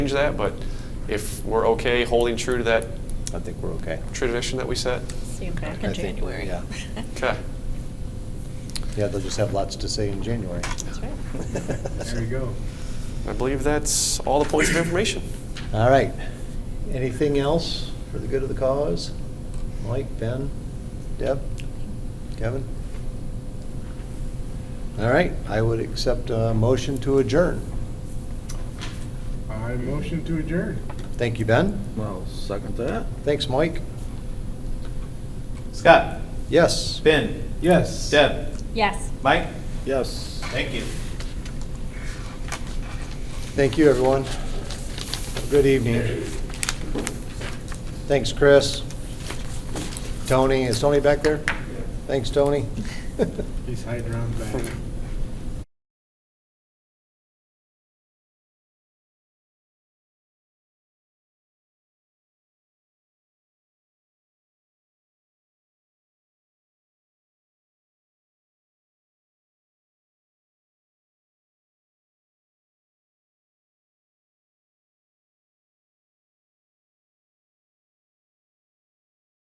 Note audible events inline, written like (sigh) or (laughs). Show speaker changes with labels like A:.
A: change that, but if we're okay holding true to that
B: I think we're okay.
A: tradition that we set,
C: See him back
B: I
C: in
B: think,
C: January.
B: yeah.
A: okay.
B: Yeah, they'll just have lots to say in January.
C: (laughs) That's right.
B: (laughs)
D: There you go.
A: I believe that's all the points of information.
B: All right. Anything else for the good of the cause? Mike, Ben, Deb, Kevin? All right, I would accept a motion to adjourn.
D: I motion to adjourn.
B: Thank you, Ben.
E: Well, second that.
B: Thanks, Mike.
F: Scott,
B: Yes.
F: Ben,
D: Yes.
F: Deb,
C: Yes.
F: Mike,
E: Yes.
F: thank you.
B: Thank you, everyone. Good evening. Thanks, Chris. Tony, (laughs) is Tony back there? Thanks, Tony.
D: He's hiding around the back.